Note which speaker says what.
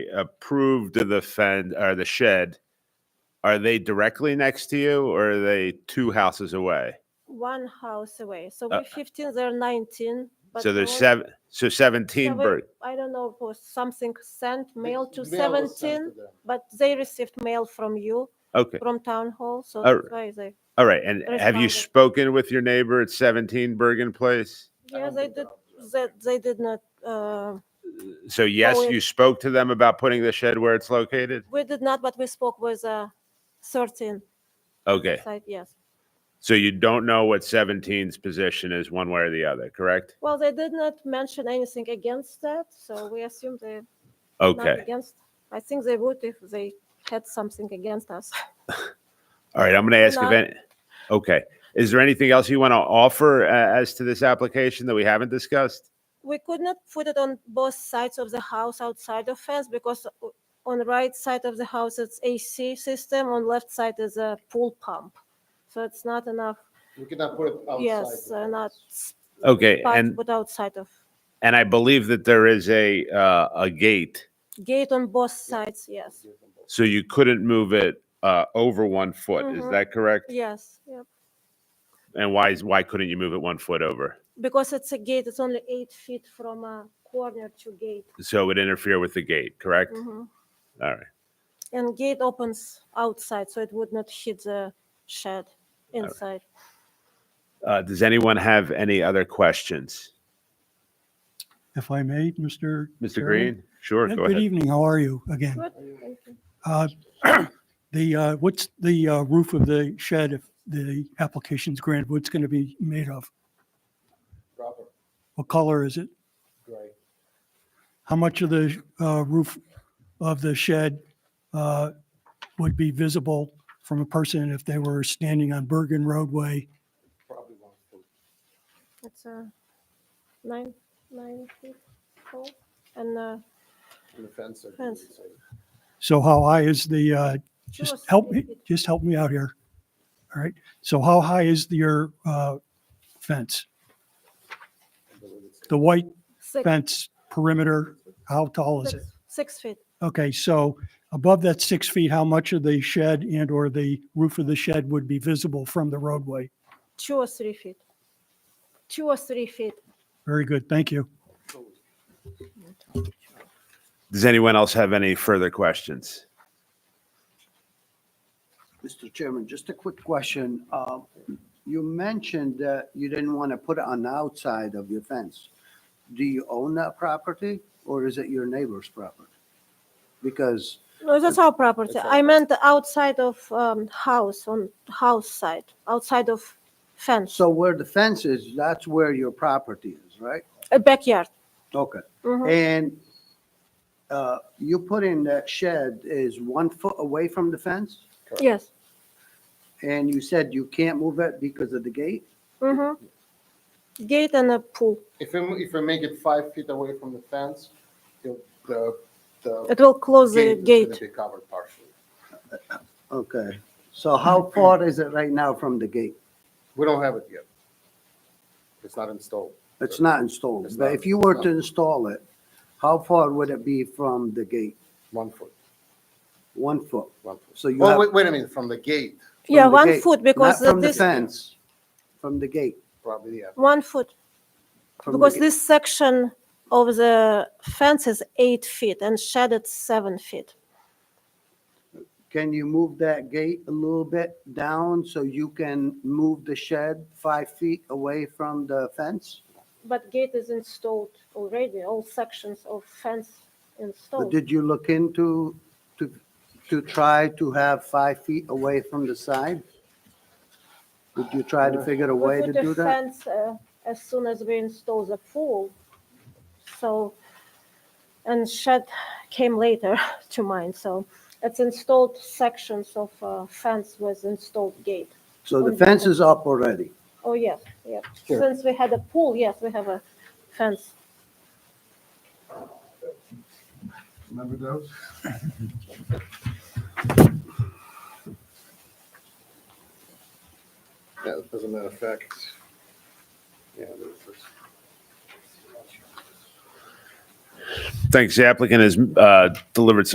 Speaker 1: approved of the fend or the shed, are they directly next to you or are they two houses away?
Speaker 2: one house away. So
Speaker 1: Uh,
Speaker 2: we're 15, they're 19. but
Speaker 1: So there's
Speaker 2: all-
Speaker 1: seven, so
Speaker 2: yeah,
Speaker 1: 17
Speaker 2: we-
Speaker 1: bird.
Speaker 2: I don't know, if it was something sent mail to
Speaker 3: was sent to
Speaker 2: 17,
Speaker 3: them.
Speaker 2: but they received mail from you,
Speaker 1: Okay. Uh,
Speaker 2: from town hall, so
Speaker 1: All
Speaker 2: that's why they,
Speaker 1: All right. And have you
Speaker 2: Responded.
Speaker 1: spoken with your neighbor at 17 Bergen Place?
Speaker 3: I
Speaker 2: yeah,
Speaker 3: don't
Speaker 2: they
Speaker 3: think
Speaker 2: did,
Speaker 3: they're-
Speaker 2: they, they did not, uh,
Speaker 1: So yes,
Speaker 2: it-
Speaker 1: you spoke to them about putting the shed where it's located?
Speaker 2: we did not, but we spoke with, uh, 13
Speaker 1: Okay.
Speaker 2: side, yes.
Speaker 1: So you don't know what 17's position is one way or the other, correct?
Speaker 2: Well, they did not mention anything against that, so we assume they're not
Speaker 1: Okay.
Speaker 2: against. I think they would if they had something against us.
Speaker 1: All right. I'm going to ask if
Speaker 2: No.
Speaker 1: any, okay. Is there anything else you want to offer uh, as to this application that we haven't discussed?
Speaker 2: we could not put it on both sides of the house outside of fence because o- on the right side of the house it's AC system, on left side is a pool pump. So it's not enough,
Speaker 3: We cannot put it outside.
Speaker 2: yes,
Speaker 3: the
Speaker 2: uh, not
Speaker 3: fence.
Speaker 2: s-
Speaker 1: Okay.
Speaker 2: part,
Speaker 1: And,
Speaker 2: but outside of,
Speaker 1: and I believe that there is a, uh, a gate.
Speaker 2: gate on both sides, yes,
Speaker 1: So you couldn't move it, uh, over one foot. Is
Speaker 2: Mhm.
Speaker 1: that correct?
Speaker 2: yes, yep.
Speaker 1: And why is, why couldn't you move it one foot over?
Speaker 2: Because it's a gate, it's only eight feet from a corner to gate.
Speaker 1: So it would interfere with the gate, correct?
Speaker 2: Mhm.
Speaker 1: All right.
Speaker 2: And gate opens outside, so it would not hit the shed inside.
Speaker 1: Uh, does anyone have any other questions?
Speaker 4: If I may, Mr.
Speaker 1: Mr.
Speaker 4: Chairman?
Speaker 1: Green? Sure,
Speaker 4: Yeah,
Speaker 1: go
Speaker 4: Good
Speaker 1: ahead.
Speaker 4: evening, how are you again?
Speaker 2: Good, thank you.
Speaker 4: Uh, The, uh, what's the uh, roof of the shed if the application's granted, what's going to be made of?
Speaker 3: Proper,
Speaker 4: What color is it?
Speaker 3: great.
Speaker 4: How much of the uh, roof of the shed uh, would be visible from a person if they were standing on Bergen roadway?
Speaker 3: probably one foot.
Speaker 2: It's uh, nine, nine feet tall and uh,
Speaker 3: And the fence. are
Speaker 2: Fence.
Speaker 3: really safe.
Speaker 4: So how high is the, uh, just
Speaker 2: was
Speaker 4: help
Speaker 2: eight
Speaker 4: me,
Speaker 2: feet.
Speaker 4: just help me out here. All right, so how high is your uh, fence?
Speaker 3: I believe it's
Speaker 4: The white
Speaker 2: six,
Speaker 4: fence perimeter, how tall is it?
Speaker 2: six- six feet.
Speaker 4: Okay, so above that six feet, how much of the shed and/or the roof of the shed would be visible from the roadway?
Speaker 2: Two or three feet. Two or three feet.
Speaker 4: Very good, thank you.
Speaker 1: Does anyone else have any further questions?
Speaker 5: Mr. Chairman, just a quick question. Um, You mentioned that you didn't want to put it on the outside of your fence. Do you own that property or is it your neighbor's property? Because,
Speaker 2: No, that's our property.
Speaker 3: That's our
Speaker 2: I meant the outside of um, house, on house side, outside of fence,
Speaker 5: so where the fence is, that's where your property is, right?
Speaker 2: a backyard.
Speaker 5: Okay.
Speaker 2: Mhm.
Speaker 5: And uh, you put in that shed is one foot away from the fence?
Speaker 2: Yes.
Speaker 5: And you said you can't move it because of the gate?
Speaker 2: Mhm. Mm-hmm. Gate and a pool.
Speaker 3: If you, if you make it five feet away from the fence, you'll- the, the.
Speaker 2: It will close the
Speaker 3: is gonna
Speaker 2: gate.
Speaker 3: Be covered partially.
Speaker 5: Okay. So how far is it right now from the gate?
Speaker 3: We don't have it yet. It's not installed.
Speaker 5: It's not installed,
Speaker 3: It's
Speaker 5: but
Speaker 3: not-
Speaker 5: if you were
Speaker 3: no.
Speaker 5: to install it, how far would it be from the gate?
Speaker 3: One foot,
Speaker 5: One foot?
Speaker 3: one foot.
Speaker 5: So you
Speaker 3: Oh,
Speaker 5: have-
Speaker 3: wait, wait a minute, from the gate,
Speaker 5: from
Speaker 2: Yeah,
Speaker 5: the
Speaker 2: one
Speaker 5: gate,
Speaker 2: foot because
Speaker 5: Not from the
Speaker 2: this,
Speaker 5: fence, from the gate.
Speaker 3: probably, yeah.
Speaker 2: one foot.
Speaker 5: from the
Speaker 2: Because
Speaker 5: gate.
Speaker 2: this section of the fence is eight feet and shed is seven feet.
Speaker 5: Can you move that gate a little bit down so you can move the shed five feet away from the fence?
Speaker 2: But gate is installed already, all sections of fence
Speaker 5: But
Speaker 2: installed.
Speaker 5: did you look into, to, to try to have five feet away from the side? Did you try
Speaker 3: Uh,
Speaker 5: to figure a
Speaker 2: We
Speaker 5: way
Speaker 2: put
Speaker 5: to
Speaker 2: the
Speaker 5: do that?
Speaker 2: fence, uh, As soon as we install the pool, so, and shed came later to mine, so it's installed sections of uh, fence with installed gate.
Speaker 5: So the fence is up already.
Speaker 2: Oh, yes, yeah.
Speaker 3: Sure.
Speaker 2: Since we had a pool, yes, we have a fence.
Speaker 3: Remember those? Yeah, as a matter of fact. Yeah. they're first.
Speaker 1: Thanks. The applicant has uh, delivered